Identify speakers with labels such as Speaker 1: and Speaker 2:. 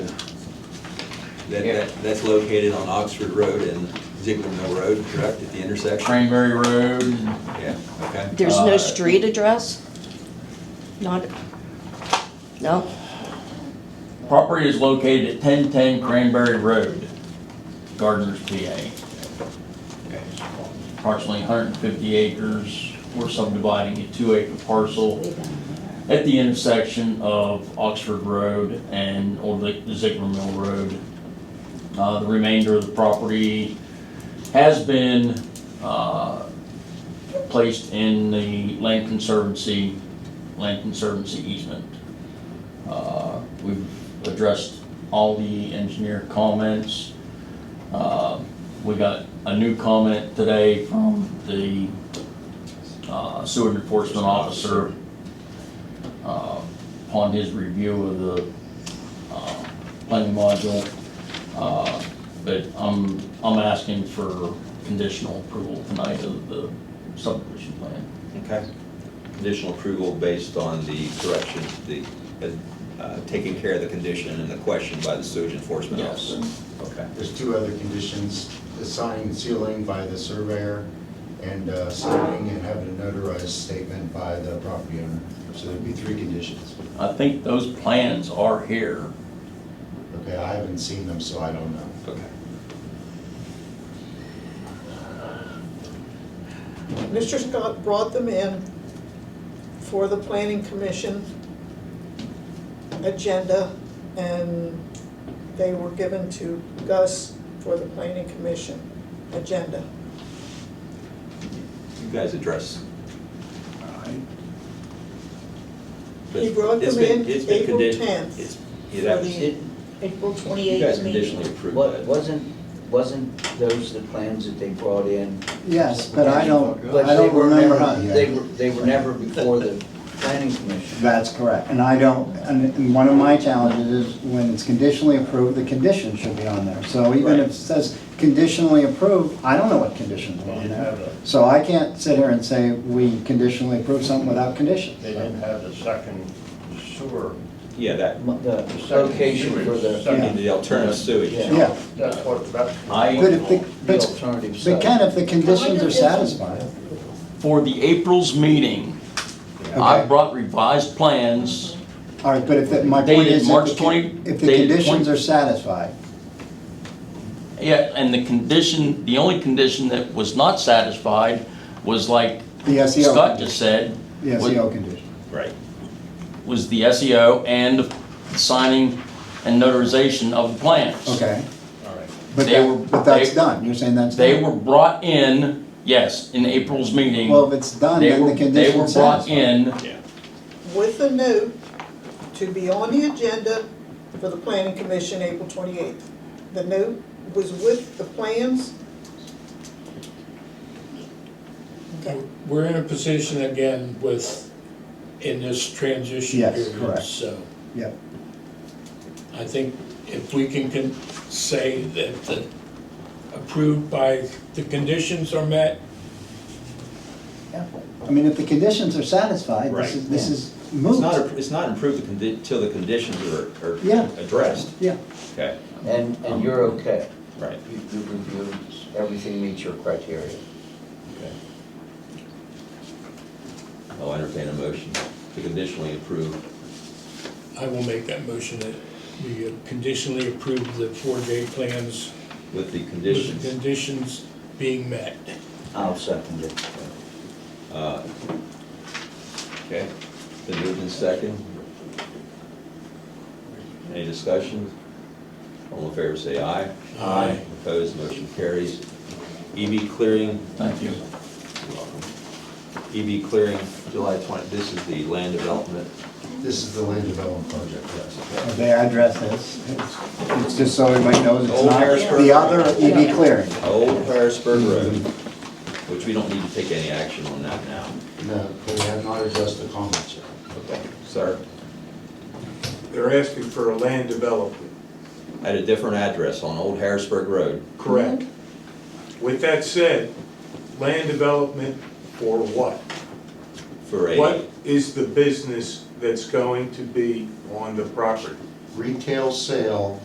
Speaker 1: That,
Speaker 2: Yeah.
Speaker 1: that, that's located on Oxford Road and Ziegler Mill Road, correct, at the intersection?
Speaker 2: Cranberry Road,
Speaker 1: Yeah, okay.
Speaker 3: There's no
Speaker 2: Uh,
Speaker 3: street address? Not, no?
Speaker 2: property is located at ten ten Cranberry Road, Gardner's, PA.
Speaker 1: Okay.
Speaker 2: Approximately hundred and fifty acres, we're subdividing a two acre parcel at the intersection of Oxford Road and Old Zieg- Ziegler Mill Road. Uh, the remainder of the property has been, uh, placed in the Land Conservancy, Land Conservancy easement. Uh, we've addressed all the engineer comments. Uh, we got a new comment today from the, uh, sewer enforcement officer uh, upon his review of the uh, planning module. Uh, But I'm, I'm asking for conditional approval tonight of the subdivision plan.
Speaker 1: Okay. Conditional approval based on the correction, the, uh, taking care of the condition and the question by the sewage enforcement
Speaker 2: Yes.
Speaker 1: officer? Okay.
Speaker 4: There's two other conditions, the sign sealing by the surveyor and uh, signing and having a notarized statement by the property owner. So there'd be three conditions.
Speaker 2: I think those plans are here.
Speaker 4: Okay, I haven't seen them, so I don't know.
Speaker 1: Okay.
Speaker 5: Mr. Scott brought them in for the planning commission agenda, and they were given to Gus for the planning commission agenda.
Speaker 1: You guys address.
Speaker 5: He brought
Speaker 1: It's
Speaker 5: them
Speaker 1: been-
Speaker 5: in
Speaker 1: it's been
Speaker 5: April
Speaker 1: condi-
Speaker 5: 10th.
Speaker 1: it's- Yeah, that was, you
Speaker 5: For
Speaker 6: Did-
Speaker 5: April
Speaker 1: guys
Speaker 5: twenty-eighth meeting.
Speaker 1: conditionally approved
Speaker 6: wa-
Speaker 1: that.
Speaker 6: Wasn't, wasn't those the plans that they brought in?
Speaker 7: Yes, but I don't,
Speaker 6: But
Speaker 7: I
Speaker 6: they
Speaker 7: don't
Speaker 6: were
Speaker 7: remember
Speaker 6: never-
Speaker 7: how.
Speaker 6: They were, they were never before the planning commission.
Speaker 7: That's correct, and I don't, and and one of my challenges is when it's conditionally approved, the condition should be on there. So even if it says conditionally approved, I don't know what conditions are on there. So I can't sit here and say we conditionally approve something without conditions.
Speaker 8: They didn't have the second sewer.
Speaker 1: Yeah, that,
Speaker 6: M- The
Speaker 8: the second
Speaker 6: location for
Speaker 8: sewage,
Speaker 6: the,
Speaker 7: Yeah.
Speaker 8: second-
Speaker 1: the alternative sewage.
Speaker 6: Yeah.
Speaker 7: Yeah,
Speaker 8: That's what, that's. what-
Speaker 2: I-
Speaker 7: but if the,
Speaker 6: the
Speaker 7: but,
Speaker 6: alternative
Speaker 7: but
Speaker 6: site.
Speaker 7: Ken, if the conditions are satisfied,
Speaker 2: For the April's meeting, I
Speaker 7: Okay.
Speaker 2: brought revised plans.
Speaker 7: all right, but if, the- my point
Speaker 2: Dated
Speaker 7: is. if
Speaker 2: March
Speaker 7: the-
Speaker 2: 20
Speaker 7: If the
Speaker 2: dated
Speaker 7: conditions
Speaker 2: 20
Speaker 7: are satisfied,
Speaker 2: Yeah, and the condition, the only condition that was not satisfied was like
Speaker 7: the SEO.
Speaker 2: Scott just said.
Speaker 7: The E
Speaker 2: was-
Speaker 7: SEO condition.
Speaker 1: Right.
Speaker 2: was the SEO and the signing and notarization of the plans.
Speaker 7: Okay.
Speaker 8: All right.
Speaker 7: But
Speaker 2: They were-
Speaker 7: that, but that's
Speaker 2: they-
Speaker 7: done, you're saying that's done?
Speaker 2: They were brought in, yes, in April's meeting.
Speaker 7: Well, if it's done,
Speaker 2: They
Speaker 7: then
Speaker 2: were-
Speaker 7: the condition's
Speaker 2: They were brought
Speaker 7: satisfied.
Speaker 2: in,
Speaker 5: With a note to be on the agenda for the planning commission April twenty-eighth. The note was with the plans. Okay.
Speaker 9: We're in a position again with, in this transition
Speaker 7: Yes,
Speaker 9: period,
Speaker 7: correct.
Speaker 9: so
Speaker 7: Yep,
Speaker 9: I think if we can, can say that the approved by, the conditions are met,
Speaker 7: I mean, if the conditions are satisfied, this
Speaker 1: Right.
Speaker 7: is, this is
Speaker 1: It's
Speaker 7: moot.
Speaker 1: not, a- it's not improved until the conditions are, are
Speaker 7: Yeah.
Speaker 1: addressed.
Speaker 7: Yeah,
Speaker 1: Okay,
Speaker 6: And, and you're okay.
Speaker 1: right.
Speaker 6: You you reviewed, everything meets your criteria.
Speaker 1: Okay. I'll entertain a motion to conditionally approve.
Speaker 9: I will make that motion that we conditionally approve the four J plans
Speaker 1: With the
Speaker 9: with the
Speaker 1: conditions,
Speaker 9: conditions being met.
Speaker 6: I'll second it.
Speaker 1: uh, okay, the moved in second. Any discussion? All in favor, say aye.
Speaker 9: Aye.
Speaker 1: Opposed, motion carries. EV clearing,
Speaker 2: thank you.
Speaker 1: you're welcome. EV clearing, July 20, this is the land development.
Speaker 4: This is the land development project, yes.
Speaker 7: they address this, it's, it's just so everybody knows it's
Speaker 1: Old
Speaker 7: not
Speaker 1: Harrisburg.
Speaker 7: the other EV clearing.
Speaker 1: Old Harrisburg Road, which we don't need to take any action on that now.
Speaker 4: No, they have not addressed the comments yet.
Speaker 1: Okay. Sir,
Speaker 10: They're asking for a land development,
Speaker 1: at a different address on Old Harrisburg Road.
Speaker 10: correct? With that said, land development for what?
Speaker 1: for a.
Speaker 10: What is the business that's going to be on the property?
Speaker 4: Retail sale